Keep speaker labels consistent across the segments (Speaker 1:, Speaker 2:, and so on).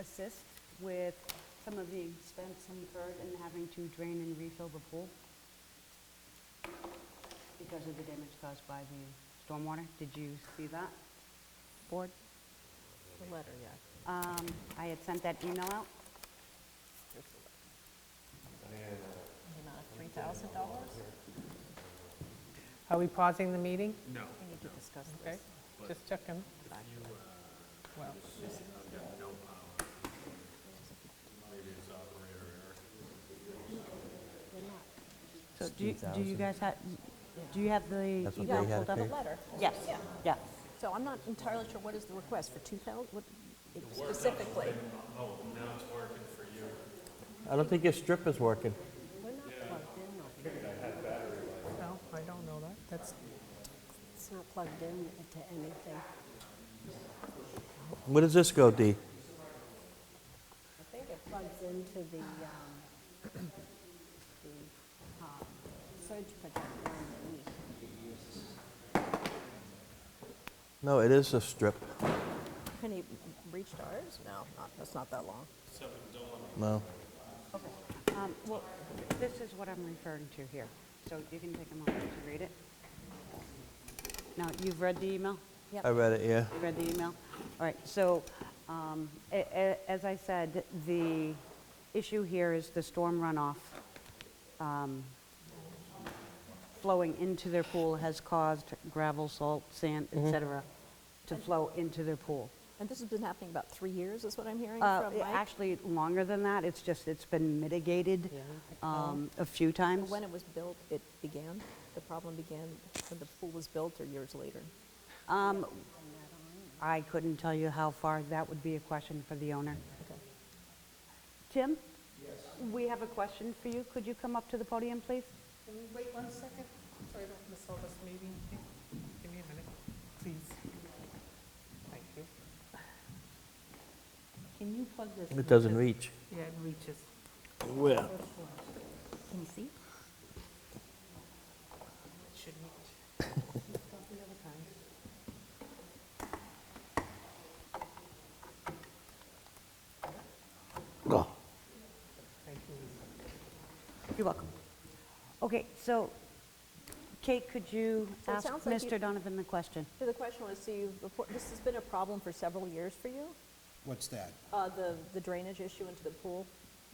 Speaker 1: assist with some of the expense incurred in having to drain and refill the pool because of the damage caused by the stormwater. Did you see that, board?
Speaker 2: The letter, yeah.
Speaker 1: Um, I had sent that email out.
Speaker 2: The amount of $3,000?
Speaker 3: Are we pausing the meeting?
Speaker 4: No,
Speaker 2: We need to discuss
Speaker 3: Okay,
Speaker 2: this.
Speaker 3: just checking. Well,
Speaker 1: So do you- do you guys have, do you have the
Speaker 5: That's what
Speaker 1: email
Speaker 5: they
Speaker 1: pulled
Speaker 5: had to
Speaker 1: up?
Speaker 5: pay?
Speaker 2: The letter.
Speaker 1: Yes,
Speaker 2: Yeah.
Speaker 1: yeah.
Speaker 2: So I'm not entirely sure what is the request for 2,000, what specifically?
Speaker 5: I don't think your strip is working.
Speaker 2: We're not plugged in, though.
Speaker 3: no, I don't know that. That's,
Speaker 2: it's not plugged in to anything.
Speaker 5: Where does this go, Dee?
Speaker 2: I think it plugs into the, um, the um, surge protector underneath.
Speaker 5: No, it is a strip.
Speaker 2: Can he reach to ours? No, not, that's not that long.
Speaker 5: No.
Speaker 1: Um, Well, this is what I'm referring to here, so you can take a moment to read it. Now, you've read the email?
Speaker 5: I read it, yeah.
Speaker 1: You read the email? All right, so, um, a- a- as I said, the issue here is the storm runoff um, flowing into their pool has caused gravel, salt, sand, et cetera, to flow into their pool.
Speaker 2: And this has been happening about three years, is what I'm hearing
Speaker 1: Uh,
Speaker 2: from Mike?
Speaker 1: Actually, longer than that, it's just, it's been mitigated um, a few times.
Speaker 2: When it was built, it began, the problem began when the pool was built or years later?
Speaker 1: Um, I couldn't tell you how far, that would be a question for the owner.
Speaker 2: Okay.
Speaker 1: Tim? Yes. We have a question for you. Could you come up to the podium, please?
Speaker 3: can we wait one second so I don't miss all this meeting? Give me a minute, please. Thank you. Can you plug this?
Speaker 5: It doesn't reach.
Speaker 3: Yeah, it reaches.
Speaker 5: Where?
Speaker 2: Can you see?
Speaker 3: It should reach. Thank you.
Speaker 1: You're welcome. Okay, so Kate, could you
Speaker 2: So it
Speaker 1: ask
Speaker 2: sounds like you-
Speaker 1: Mr. Donovan the question?
Speaker 2: So the question was, so you've, report- this has been a problem for several years for you?
Speaker 6: What's that?
Speaker 2: Uh, The the drainage issue into the pool,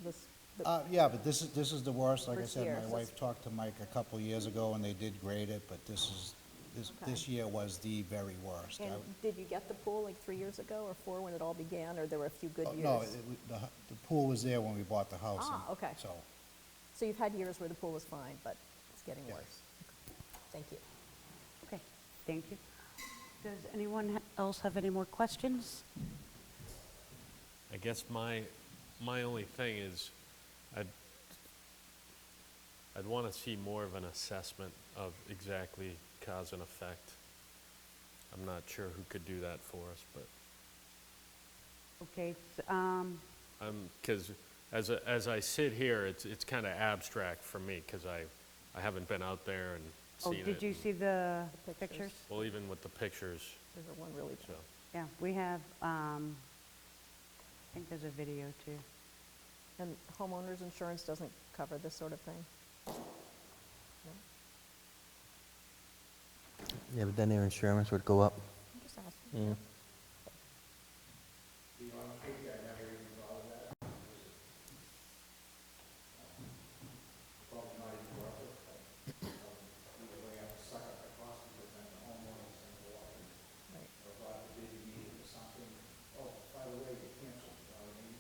Speaker 2: this, the-
Speaker 6: Uh, yeah, but this is, this is the worst. Like I
Speaker 2: First
Speaker 6: said,
Speaker 2: year,
Speaker 6: my
Speaker 2: so
Speaker 6: wife
Speaker 2: it's-
Speaker 6: talked to Mike a couple years ago and they did grade it, but this is, this,
Speaker 2: Okay.
Speaker 6: this year was the very worst. I-
Speaker 2: and did you get the pool like three years ago or four when it all began, or there were a few good
Speaker 6: Oh,
Speaker 2: years?
Speaker 6: No, it, w- the, hu- the pool was there when we bought the house.
Speaker 2: Ah,
Speaker 6: and
Speaker 2: okay.
Speaker 6: So,
Speaker 2: So you've had years where the pool was fine, but it's getting
Speaker 6: Yes.
Speaker 2: worse. Thank you.
Speaker 1: Okay, thank you. Does anyone ha- else have any more questions?
Speaker 7: I guess my, my only thing is, I'd, I'd want to see more of an assessment of exactly cause and effect. I'm not sure who could do that for us, but
Speaker 1: Okay, s- um,
Speaker 7: I'm, because as, I- as I sit here, it's, it's kind of abstract for me, because I, I haven't been out there and
Speaker 1: oh,
Speaker 7: seen it.
Speaker 1: did you
Speaker 7: and-
Speaker 1: see the
Speaker 2: The
Speaker 1: pictures?
Speaker 2: pictures.
Speaker 7: Well, even with the pictures,
Speaker 2: There's a one really,
Speaker 7: so,
Speaker 1: Yeah, we have, um, I think there's a video too.
Speaker 2: and homeowners insurance doesn't cover this sort of thing? No?
Speaker 5: Yeah, but then their insurance would go up.
Speaker 2: I'm just asking.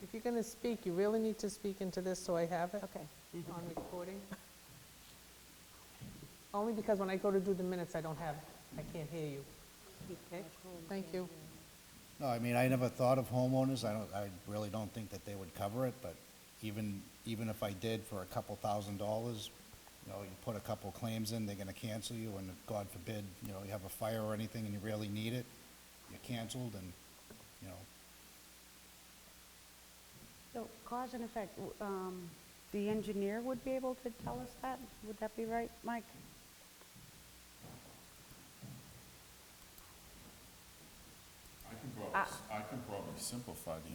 Speaker 3: If you're going to speak, you really need to speak into this so I have it
Speaker 2: Okay.
Speaker 3: on recording. Only because when I go to do the minutes, I don't have, I can't hear you. Okay? Thank you.
Speaker 6: no, I mean, I never thought of homeowners. I don't, I really don't think that they would cover it, but even, even if I did for a couple thousand dollars, you know, you put a couple claims in, they're gonna cancel you, and if, God forbid, you know, you have a fire or anything and you really need it, you're canceled and, you know,
Speaker 1: So cause and effect, w- um, the engineer would be able to tell us that? Would that be right, Mike? Uh,
Speaker 8: I can probably, I can probably simplify the